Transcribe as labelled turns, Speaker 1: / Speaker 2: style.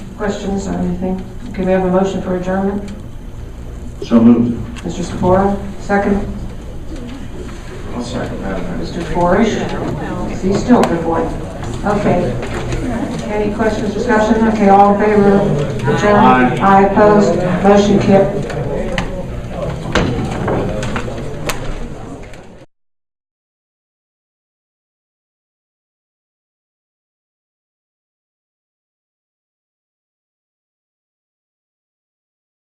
Speaker 1: questions or anything? Okay, we have a motion for adjournment.
Speaker 2: So moved.
Speaker 1: Mr. Sephora, second.
Speaker 2: I'll second that.
Speaker 1: Mr. Forrest, be still, good boy. Okay. Any questions, discussion? Okay, all in favor? Adjourned.
Speaker 2: Aye.
Speaker 1: Aye opposed, motion kept.